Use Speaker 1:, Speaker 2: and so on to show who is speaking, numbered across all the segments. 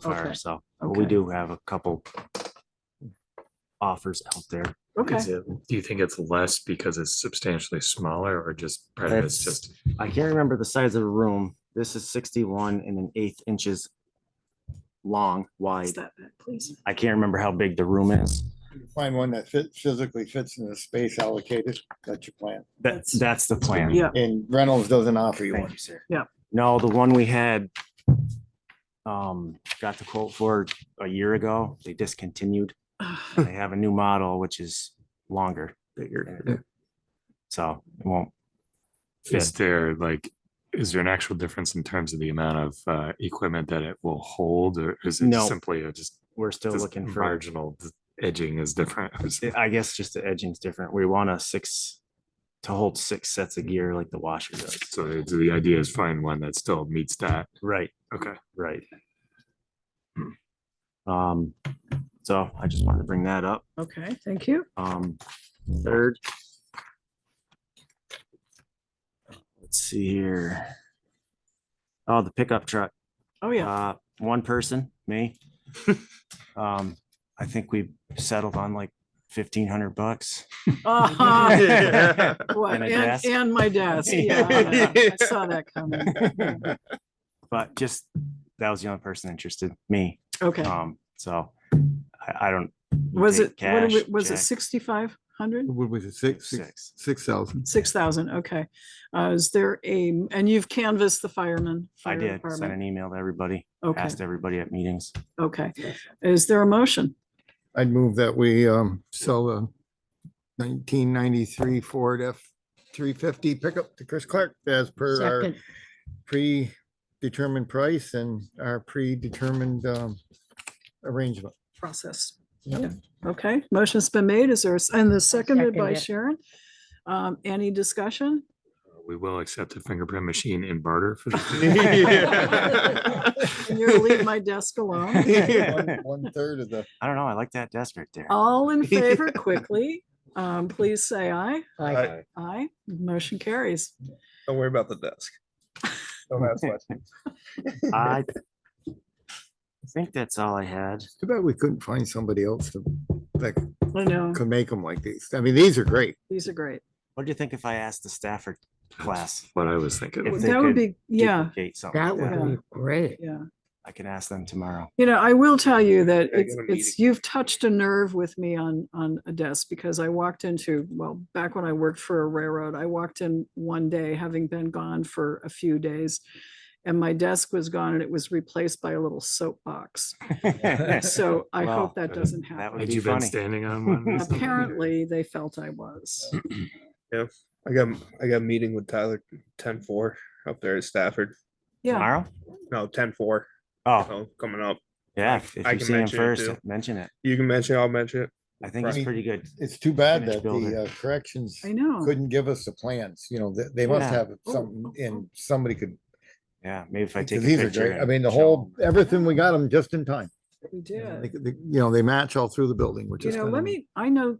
Speaker 1: fire,
Speaker 2: Okay.
Speaker 1: so, but we
Speaker 2: Okay.
Speaker 1: do have a couple offers out there.
Speaker 2: Okay.
Speaker 3: Is it, do you think it's less because it's substantially smaller or just part of it's
Speaker 1: That's-
Speaker 3: just,
Speaker 1: I can't remember the size of the room. This is sixty-one and an eighth inches long,
Speaker 2: Is
Speaker 1: wide.
Speaker 2: that it, please?
Speaker 1: I can't remember how big the room is.
Speaker 4: Find one that fit, physically fits in the space allocated, that's your plan.
Speaker 1: That's, that's the plan.
Speaker 2: Yeah,
Speaker 4: And Reynolds doesn't offer you
Speaker 1: Thank
Speaker 4: one.
Speaker 1: you, sir.
Speaker 2: Yeah.
Speaker 1: No, the one we had um, got the quote for a year ago, they discontinued. They have a new model, which is longer, bigger. So it won't
Speaker 3: is
Speaker 1: fit.
Speaker 3: there like, is there an actual difference in terms of the amount of uh, equipment that it will hold or is it
Speaker 1: No.
Speaker 3: simply a just?
Speaker 1: We're still
Speaker 3: just
Speaker 1: looking for,
Speaker 3: Marginal d- edging is different. or something?
Speaker 1: I guess just the edging's different. We want a six to hold six sets of gear like the washer does.
Speaker 3: So the the idea is find one that still meets that.
Speaker 1: Right,
Speaker 3: Okay.
Speaker 1: right. Um, so I just wanted to bring that up.
Speaker 2: okay, thank you.
Speaker 1: Um, third. Let's see here. Oh, the pickup truck.
Speaker 2: Oh, yeah,
Speaker 1: Uh, one person, me. Um, I think we settled on like fifteen hundred bucks.
Speaker 2: Uh-huh.
Speaker 3: Oh, Yeah.
Speaker 2: What,
Speaker 1: And a
Speaker 2: and,
Speaker 1: desk.
Speaker 2: and my desk, yeah, I saw that coming,
Speaker 1: But just, that was the only person interested, me.
Speaker 2: okay,
Speaker 1: Um, so I, I don't. we
Speaker 2: was it,
Speaker 1: take
Speaker 2: what did
Speaker 1: cash,
Speaker 2: we- was it
Speaker 1: check,
Speaker 2: sixty-five hundred?
Speaker 5: What was it, six, six,
Speaker 1: Six.
Speaker 5: six thousand?
Speaker 2: Six thousand, okay, uh, is there a, and you've canvassed the firemen?
Speaker 1: I
Speaker 2: fire
Speaker 1: did send
Speaker 2: department?
Speaker 1: an email to everybody,
Speaker 2: Okay,
Speaker 1: asked everybody at meetings.
Speaker 2: okay, is there a motion?
Speaker 5: I'd move that we um sell the nineteen ninety-three Ford F three fifty pickup to Chris Clark as per our predetermined price and our predetermined um arrangement.
Speaker 2: Process.
Speaker 5: Yep.
Speaker 2: Okay, motion's been made, is there, a s- and the seconded by
Speaker 6: second it.
Speaker 2: Sharon? Um, any discussion?
Speaker 3: We will accept a fingerprint machine in barter for
Speaker 2: And
Speaker 3: this.
Speaker 2: You're gonna leave my desk alone.
Speaker 1: I
Speaker 4: One third of the,
Speaker 1: don't know, I like that desk right there.
Speaker 2: All in favor quickly, um, please say aye.
Speaker 6: Aye.
Speaker 2: Aye, motion carries.
Speaker 7: Don't worry about the desk. Don't ask questions.
Speaker 1: I think that's all I had.
Speaker 5: Too bad we couldn't find somebody else to, that
Speaker 2: I know,
Speaker 5: could make them like these. I mean, these are great.
Speaker 2: these are great.
Speaker 1: What do you think if I asked the Stafford class?
Speaker 3: What I was thinking.
Speaker 1: If they
Speaker 2: That
Speaker 1: could
Speaker 2: would be, yeah,
Speaker 1: Duplicate something
Speaker 6: That
Speaker 1: like that.
Speaker 6: would be great.
Speaker 2: yeah.
Speaker 1: I can ask them tomorrow.
Speaker 2: You know, I will tell you that
Speaker 7: I
Speaker 2: it's,
Speaker 7: got a
Speaker 2: it's,
Speaker 7: meeting.
Speaker 2: you've touched a nerve with me on, on a desk because I walked into, well, back when I worked for a railroad, I walked in one day, having been gone for a few days. And my desk was gone and it was replaced by a little soapbox. So I
Speaker 1: Wow.
Speaker 2: hope that doesn't
Speaker 1: That
Speaker 2: happen.
Speaker 1: would
Speaker 3: Had
Speaker 1: be
Speaker 3: you been
Speaker 1: funny.
Speaker 3: standing on one? or something?
Speaker 2: Apparently, they felt I was.
Speaker 7: I got, I got a meeting with Tyler ten four up there at Stafford.
Speaker 2: Yeah,
Speaker 1: Tomorrow?
Speaker 7: No, ten four,
Speaker 1: Oh,
Speaker 7: so coming up.
Speaker 1: yeah. if- If
Speaker 7: I
Speaker 1: you
Speaker 7: can
Speaker 1: see him
Speaker 7: mention it
Speaker 1: first,
Speaker 7: too.
Speaker 1: mention it.
Speaker 7: You can mention, it, I'll mention it.
Speaker 1: I think it's
Speaker 5: Right.
Speaker 1: pretty good.
Speaker 4: it's too bad
Speaker 1: Finished
Speaker 4: that
Speaker 1: building.
Speaker 4: the uh, corrections
Speaker 2: I know.
Speaker 4: couldn't give us the plans, you know, they, they must
Speaker 1: Yeah.
Speaker 4: have
Speaker 2: Oh,
Speaker 4: something
Speaker 2: oh,
Speaker 4: and somebody could.
Speaker 1: Yeah, maybe if I take
Speaker 4: Because
Speaker 1: a
Speaker 4: these are
Speaker 1: picture.
Speaker 4: great. I
Speaker 1: and
Speaker 4: mean, the
Speaker 1: show
Speaker 4: whole,
Speaker 1: 'em.
Speaker 4: everything, we got them just in time.
Speaker 2: We
Speaker 5: They-
Speaker 2: did.
Speaker 5: they- You know, they match all through the building, which
Speaker 2: You
Speaker 5: is.
Speaker 2: know,
Speaker 5: kind
Speaker 2: let
Speaker 5: of-
Speaker 2: me, I know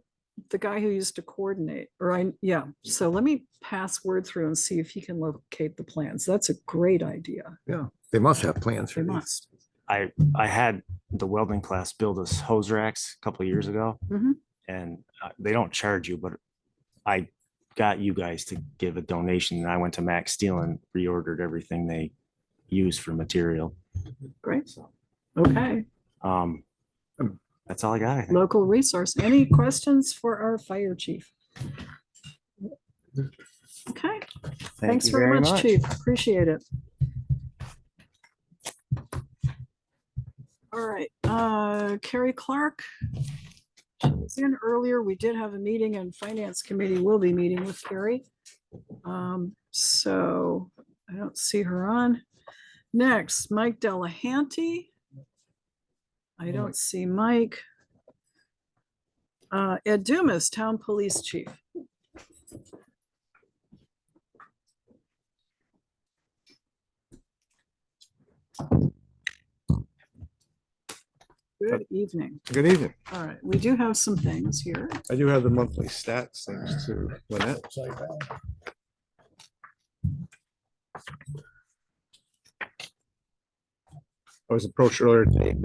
Speaker 2: the guy who used to coordinate, or I, yeah, so let me pass word through and see if he can locate the plans. That's a great idea.
Speaker 5: They must have plans
Speaker 2: They
Speaker 5: for these.
Speaker 2: must.
Speaker 1: I, I had the welding class build us hose racks a couple of years ago.
Speaker 2: Mhm.
Speaker 1: And uh, they don't charge you, but I got you guys to give a donation and I went to Max Steel and reordered everything they use for material.
Speaker 2: Great.
Speaker 1: So,
Speaker 2: Okay,
Speaker 1: um, that's all I got. I think.
Speaker 2: local resource. Any questions for our fire chief? Okay,
Speaker 1: Thank
Speaker 2: thanks
Speaker 1: you
Speaker 2: very much, chief. Appreciate it. All right, uh, Carrie Clark. She was in earlier. We did have a meeting and finance committee will be meeting with Carrie. Um, so I don't see her on. Next, Mike Delahanty. I don't see Mike. Uh, Ed Dumas, Town Police Chief. Good evening.
Speaker 5: Good evening.
Speaker 2: All right, we do have some things here.
Speaker 5: I do have the monthly stats thanks to Lynette.
Speaker 8: I was approached earlier today